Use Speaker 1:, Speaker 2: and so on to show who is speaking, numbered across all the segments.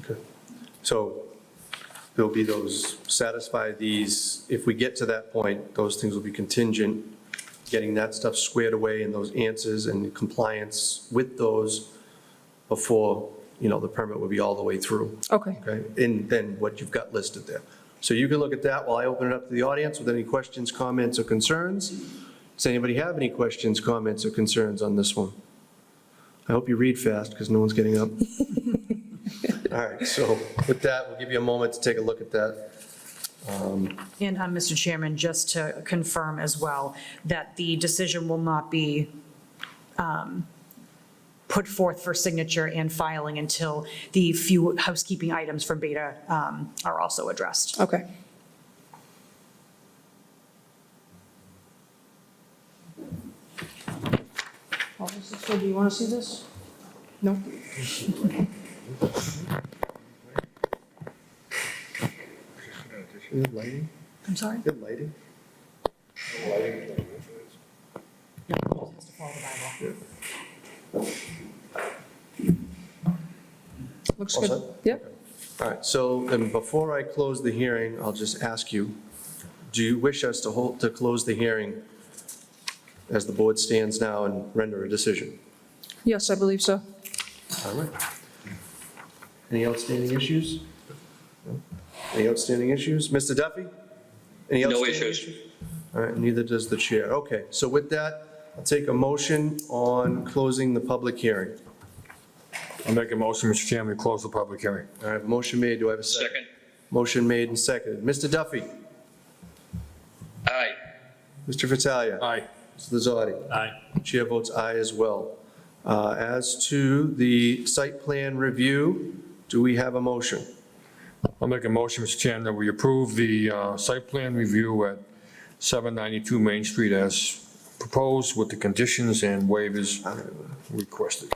Speaker 1: Okay. So there'll be those, satisfy these, if we get to that point, those things will be contingent, getting that stuff squared away and those answers and compliance with those before, you know, the permit will be all the way through,
Speaker 2: Okay.
Speaker 1: okay? And then what you've got listed there. So you can look at that while I open it up to the audience with any questions, comments, or concerns. Does anybody have any questions, comments, or concerns on this one? I hope you read fast, because no one's getting up. All right, so with that, we'll give you a moment to take a look at that.
Speaker 3: And, uh, Mr. Chairman, just to confirm as well, that the decision will not be um, put forth for signature and filing until the few housekeeping items from Beta um, are also addressed.
Speaker 2: Okay.
Speaker 4: So do you want to see this?
Speaker 2: No?
Speaker 1: Good lighting,
Speaker 3: I'm sorry?
Speaker 1: good lighting.
Speaker 2: Looks
Speaker 1: All
Speaker 2: good.
Speaker 1: set?
Speaker 2: Yep.
Speaker 1: All right, so, and before I close the hearing, I'll just ask you, do you wish us to hold, to close the hearing as the board stands now and render a decision?
Speaker 2: Yes, I believe so.
Speaker 1: All right. Any outstanding issues? No? Any outstanding issues? Mr. Duffy? Any
Speaker 5: No
Speaker 1: outstanding
Speaker 5: issues.
Speaker 1: All right, neither does the chair. Okay, so with that, I'll take a motion on closing the public hearing.
Speaker 6: I'll make a motion, Mr. Chairman, to close the public hearing.
Speaker 1: All right, motion made, do I have a second?
Speaker 5: Second.
Speaker 1: Motion made and seconded. Mr. Duffy?
Speaker 5: Aye.
Speaker 1: Mr. Fattalia?
Speaker 6: Aye.
Speaker 1: Mr. Lazardi?
Speaker 6: Aye.
Speaker 1: Chair votes aye as well. Uh, As to the site plan review, do we have a motion?
Speaker 6: I'll make a motion, Mr. Chairman, that we approve the uh, site plan review at 792 Main Street as proposed with the conditions and waivers requested.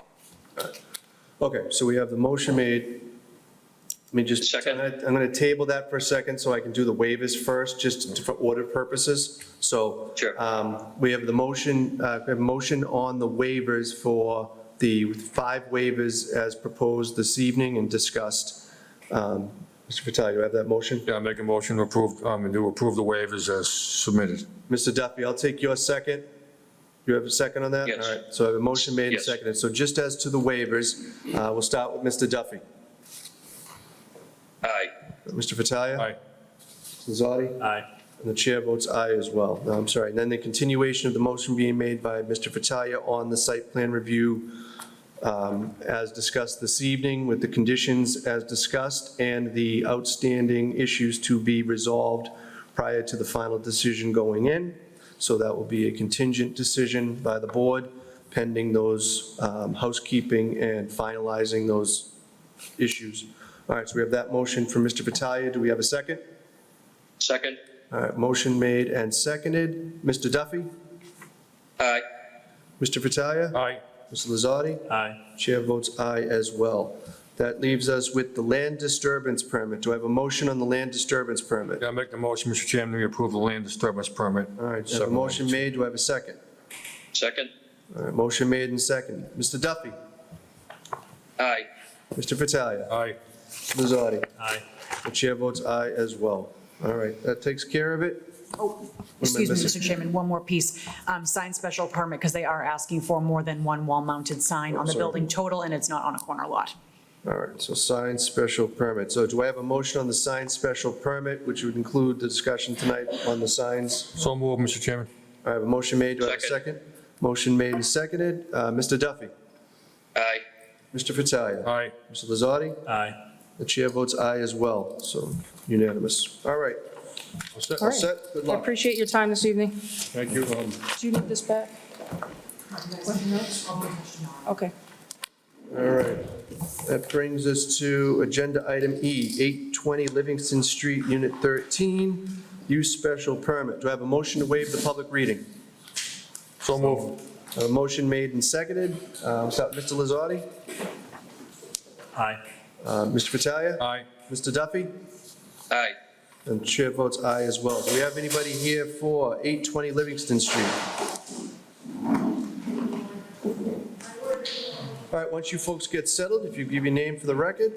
Speaker 1: Okay, so we have the motion made. Let me just.
Speaker 5: Second.
Speaker 1: I'm gonna- I'm going to table that for a second so I can do the waivers first, just for order purposes. So.
Speaker 5: Sure.
Speaker 1: um, We have the motion, uh, we have a motion on the waivers for the five waivers as proposed this evening and discussed. Um, Mr. Vitale, you have that motion?
Speaker 6: Yeah, I make a motion to approve, um, to approve the waivers as submitted.
Speaker 1: Mr. Duffy, I'll take your second. You have a second on that?
Speaker 5: Yes.
Speaker 1: All right, so I have a motion made and
Speaker 5: Yes.
Speaker 1: seconded. So just as to the waivers, uh, we'll start with Mr. Duffy.
Speaker 5: Aye.
Speaker 1: Mr. Vitale?
Speaker 6: Aye.
Speaker 1: Lozardi? Aye. And the chair votes aye as well. No, I'm sorry. And then the continuation of the motion being made by Mr. Fattalia on the site plan review um, as discussed this evening with the conditions as discussed and the outstanding issues to be resolved prior to the final decision going in. So that will be a contingent decision by the board pending those um, housekeeping and finalizing those issues. All right, so we have that motion from Mr. Fattalia. Do we have a second?
Speaker 5: Second.
Speaker 1: All right, motion made and seconded. Mr. Duffy?
Speaker 5: Aye.
Speaker 1: Mr. Fattalia?
Speaker 6: Aye.
Speaker 1: Mr. Lazardi? Aye. Chair votes aye as well. That leaves us with the land disturbance permit. Do I have a motion on the land disturbance permit?
Speaker 6: Yeah, I make the motion, Mr. Chairman, to approve the land disturbance permit.
Speaker 1: All right, so a motion made, do I have a second?
Speaker 5: Second.
Speaker 1: All right, motion made and seconded. Mr. Duffy?
Speaker 5: Aye.
Speaker 1: Mr. Fattalia?
Speaker 6: Aye.
Speaker 1: Mr. Lazardi? Aye. The chair votes aye as well. All right, that takes care of it.
Speaker 3: Oh, excuse me,
Speaker 1: missing?
Speaker 3: Mr. Chairman, one more piece. Um, Sign special permit, because they are asking for more than one wall-mounted sign on the
Speaker 1: Sorry.
Speaker 3: building total, and it's not on a corner lot.
Speaker 1: All right, so sign special permit. So do I have a motion on the sign special permit, which would include the discussion tonight on the signs?
Speaker 6: So moved, Mr. Chairman.
Speaker 1: I have a motion made, do I have a
Speaker 5: Second.
Speaker 1: second? Motion made and seconded. Uh, Mr. Duffy?
Speaker 5: Aye.
Speaker 1: Mr. Fattalia?
Speaker 6: Aye.
Speaker 1: Mr. Lazardi?
Speaker 7: Aye.
Speaker 1: The chair votes aye as well, so unanimous. All right. All set, all
Speaker 2: All right.
Speaker 1: set, good
Speaker 2: I
Speaker 1: luck.
Speaker 2: appreciate your time this evening.
Speaker 6: Thank you. Um,
Speaker 2: Do you need this back? Okay.
Speaker 1: All right. That brings us to Agenda Item E, 820 Livingston Street, Unit 13, use special permit. Do I have a motion to waive the public reading?
Speaker 6: So moved.
Speaker 1: A motion made and seconded. Um, so, Mr. Lazardi,
Speaker 7: Aye.
Speaker 1: uh, Mr. Fattalia,
Speaker 6: Aye.
Speaker 1: Mr. Duffy,
Speaker 5: Aye.
Speaker 1: and the chair votes aye as well. Do we have anybody here for 820 Livingston Street? All right, once you folks get settled, if you give your name for the record.